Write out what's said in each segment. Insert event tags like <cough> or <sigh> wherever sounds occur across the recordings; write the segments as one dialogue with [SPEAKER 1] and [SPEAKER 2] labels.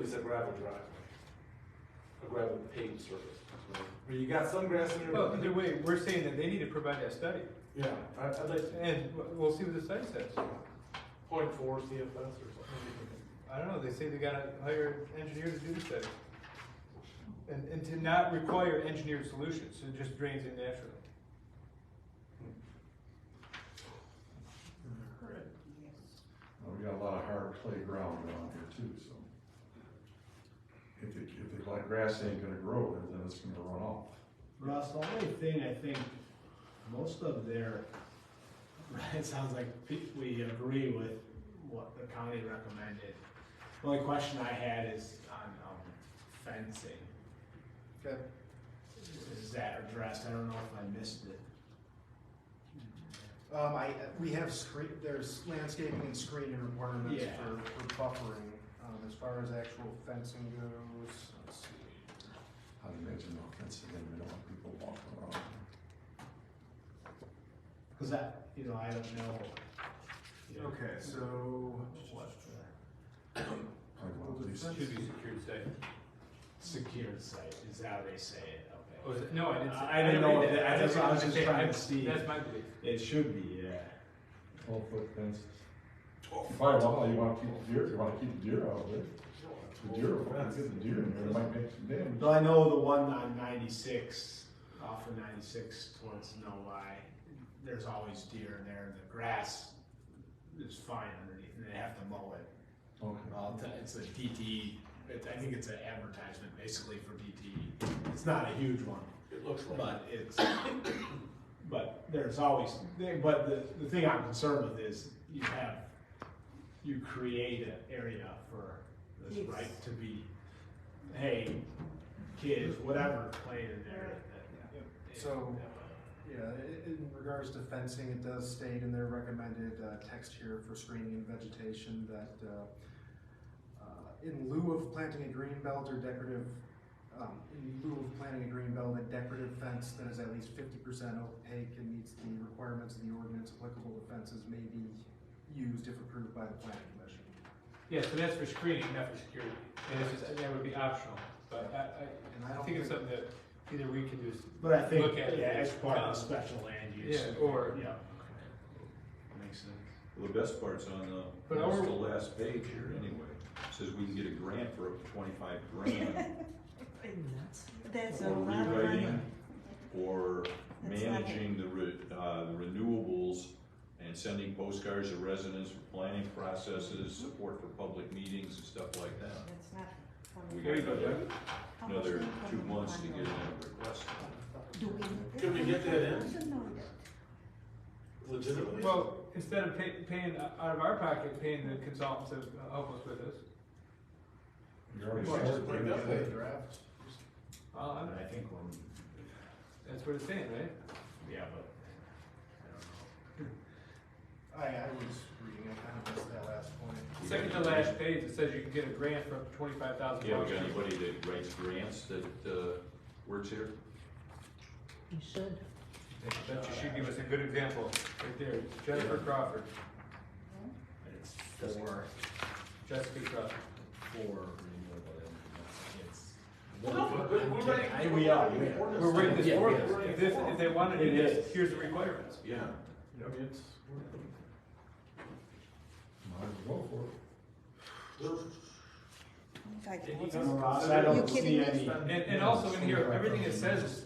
[SPEAKER 1] is a gravel driveway. A gravel paved surface. But you got some grass in there.
[SPEAKER 2] Well, either way, we're saying that they need to provide that study,
[SPEAKER 1] Yeah, I, I'd like to,
[SPEAKER 2] and w- we'll see what the study says.
[SPEAKER 1] point four CFS or something.
[SPEAKER 2] I don't know, they say they gotta hire an engineer to do the study. And, and to not require engineered solutions, so it just drains in naturally.
[SPEAKER 3] Well, Oh, We got a lot of hard playground around here too, so. If it, if it like grass ain't gonna grow, there, then it's gonna run off.
[SPEAKER 4] Russ, the only thing I think, most of their, <laughs> it sounds like pe- we agree with what the county recommended. The only question I had is on um, fencing,
[SPEAKER 2] Okay.
[SPEAKER 4] is that addressed? I don't know if I missed it.
[SPEAKER 5] Um, I, we have screen, there's landscaping and screening requirements
[SPEAKER 4] Yeah.
[SPEAKER 5] for, for buffering, um, as far as actual fencing goes, let's see.
[SPEAKER 3] I'd imagine no fence again, we don't want people walking around.
[SPEAKER 4] Cause that, you know, I don't know. you know,
[SPEAKER 5] Okay, so,
[SPEAKER 4] What the
[SPEAKER 3] Like, well, at least-
[SPEAKER 2] Should be secured site.
[SPEAKER 4] secured site, is how they say it, okay.
[SPEAKER 2] Was Oh, it, no, I didn't say.
[SPEAKER 4] I didn't know
[SPEAKER 2] read
[SPEAKER 4] that. I just- I was just
[SPEAKER 2] That's
[SPEAKER 4] trying to
[SPEAKER 2] my-
[SPEAKER 4] see.
[SPEAKER 2] That's my belief.
[SPEAKER 4] It should be, yeah.
[SPEAKER 3] Twelve foot fences. Firewall, you wanna keep deer, you wanna keep deer out of it. The deer, if we don't get the deer in there, it might make some damage.
[SPEAKER 4] Well, I know the one on ninety-six, off of ninety-six towards Novi, there's always deer in there, and the grass is fine underneath, and they have to mow it.
[SPEAKER 3] Okay.
[SPEAKER 4] Well, it's a- it's a DT, it, I think it's an advertisement basically for DT, it's not a huge one,
[SPEAKER 1] It looks like.
[SPEAKER 4] but it's, but there's always, but the, the thing I'm concerned with is you have, you create an area for this
[SPEAKER 6] Yes.
[SPEAKER 4] right to be, hey, kids, whatever, playing in there. that- that-
[SPEAKER 5] So- yeah, i- in regards to fencing, it does state in their recommended, uh, text here for screening and vegetation that, uh, uh, in lieu of planting a green belt or decorative, um, in lieu of planting a green belt, a decorative fence that is at least fifty percent opaque and meets the requirements of the ordinance applicable to fences may be used if approved by the planning commission.
[SPEAKER 2] Yeah, so that's for screening, not for security, and it's just, that would be optional, but
[SPEAKER 5] And
[SPEAKER 2] I,
[SPEAKER 5] I
[SPEAKER 2] I, I
[SPEAKER 5] don't
[SPEAKER 2] think
[SPEAKER 5] think,
[SPEAKER 2] it's something that either we can do, s-
[SPEAKER 4] But I think,
[SPEAKER 2] Look at it.
[SPEAKER 4] yeah, it's part of the special land use.
[SPEAKER 2] Yeah, or-
[SPEAKER 4] Yeah.
[SPEAKER 7] Makes sense.
[SPEAKER 8] Well, the best part's on the,
[SPEAKER 2] But
[SPEAKER 8] almost
[SPEAKER 2] our-
[SPEAKER 8] the last page here anyway. It Says we can get a grant for up to twenty-five grand
[SPEAKER 6] That's a
[SPEAKER 8] for
[SPEAKER 6] lot of money.
[SPEAKER 8] rewriting or
[SPEAKER 6] That's not it.
[SPEAKER 8] managing the re, uh, the renewables and sending postcards to residents for planning processes, support for public meetings and stuff like that.
[SPEAKER 6] That's not.
[SPEAKER 8] We
[SPEAKER 6] How
[SPEAKER 8] got another,
[SPEAKER 6] much
[SPEAKER 8] another
[SPEAKER 6] they put
[SPEAKER 8] two
[SPEAKER 6] in
[SPEAKER 8] months to
[SPEAKER 6] one
[SPEAKER 8] get
[SPEAKER 6] room?
[SPEAKER 8] another request.
[SPEAKER 6] Do we need
[SPEAKER 1] Can we get that in?
[SPEAKER 6] Should know that.
[SPEAKER 1] Legitimately.
[SPEAKER 2] well, instead of pay, paying out of our pocket, paying the consultants to help us with this.
[SPEAKER 3] You already
[SPEAKER 1] Well, just
[SPEAKER 3] started
[SPEAKER 1] bring
[SPEAKER 3] doing
[SPEAKER 1] that way.
[SPEAKER 3] that.
[SPEAKER 2] Well,
[SPEAKER 4] And
[SPEAKER 2] I'm-
[SPEAKER 4] I think when,
[SPEAKER 2] that's what it's saying, right?
[SPEAKER 4] yeah, but,
[SPEAKER 5] I, I was reading, I kind of missed that last point.
[SPEAKER 2] Second to last page, it says you can get a grant for up to twenty-five thousand
[SPEAKER 8] Yeah, we
[SPEAKER 2] dollars.
[SPEAKER 8] got anybody that writes grants that, uh, works here?
[SPEAKER 6] You should.
[SPEAKER 2] That you should give us a good example, right there, Jennifer Crawford,
[SPEAKER 4] I don't know. It's for,
[SPEAKER 2] Jessica Crawford.
[SPEAKER 4] for renewable energy, it's.
[SPEAKER 1] We're ready.
[SPEAKER 4] I- We are, we are.
[SPEAKER 2] We're writing this
[SPEAKER 4] Yeah,
[SPEAKER 2] for
[SPEAKER 4] yeah.
[SPEAKER 2] them, if, this- if they wanna do
[SPEAKER 4] It
[SPEAKER 2] this,
[SPEAKER 4] is.
[SPEAKER 2] here's the requirements.
[SPEAKER 8] Yeah.
[SPEAKER 1] I mean, it's,
[SPEAKER 3] Might as well for it.
[SPEAKER 6] In fact,
[SPEAKER 1] Did he
[SPEAKER 6] what's
[SPEAKER 1] go-
[SPEAKER 6] his-
[SPEAKER 4] Ross, I don't
[SPEAKER 6] You kidding
[SPEAKER 4] see
[SPEAKER 6] me?
[SPEAKER 4] any.
[SPEAKER 2] And, and also in here, everything it says is,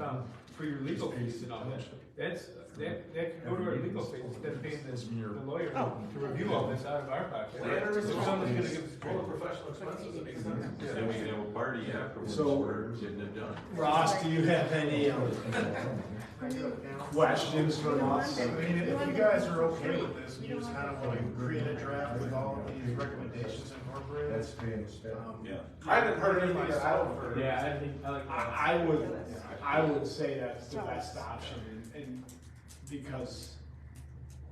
[SPEAKER 2] um, for your legal fees and all that, that's, that, that can go to our legal fees, instead of paying this, the lawyer
[SPEAKER 4] Oh.
[SPEAKER 2] to review all this out of our pocket.
[SPEAKER 1] Landowners
[SPEAKER 2] So
[SPEAKER 1] are-
[SPEAKER 2] someone's gonna give us a
[SPEAKER 1] all
[SPEAKER 2] grant.
[SPEAKER 1] the professional expenses, it makes sense.
[SPEAKER 8] Then we can have a party afterwards
[SPEAKER 4] So-
[SPEAKER 8] for getting it done.
[SPEAKER 4] Ross, do you have any, um,
[SPEAKER 5] I do it now.
[SPEAKER 4] questions for us?
[SPEAKER 5] I mean, if you guys are okay with this, we just kind of want to create a draft with all of these recommendations incorporated.
[SPEAKER 3] That's paying the staff.
[SPEAKER 5] um,
[SPEAKER 8] Yeah.
[SPEAKER 1] I haven't heard anything that I don't heard.
[SPEAKER 2] Yeah, I think, I like that.
[SPEAKER 4] I, I would, I would say that's the best option, and, and because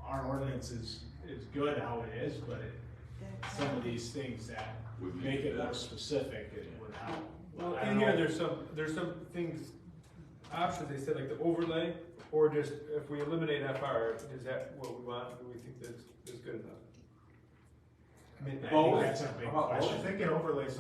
[SPEAKER 4] our ordinance is, is good how it is, but it,
[SPEAKER 6] That's-
[SPEAKER 4] some of these things that
[SPEAKER 8] Would make
[SPEAKER 4] make it
[SPEAKER 8] it
[SPEAKER 4] more
[SPEAKER 8] better.
[SPEAKER 4] specific, it would help.
[SPEAKER 2] Well,
[SPEAKER 4] I
[SPEAKER 2] in
[SPEAKER 4] don't
[SPEAKER 2] here,
[SPEAKER 4] know.
[SPEAKER 2] there's some, there's some things, options, they said like the overlay, or just if we eliminate FR, is that what we want, do we think that's, is good enough? I mean,
[SPEAKER 4] I
[SPEAKER 2] both.
[SPEAKER 4] think that's a big
[SPEAKER 1] How about both?
[SPEAKER 4] question.
[SPEAKER 5] I think an overlay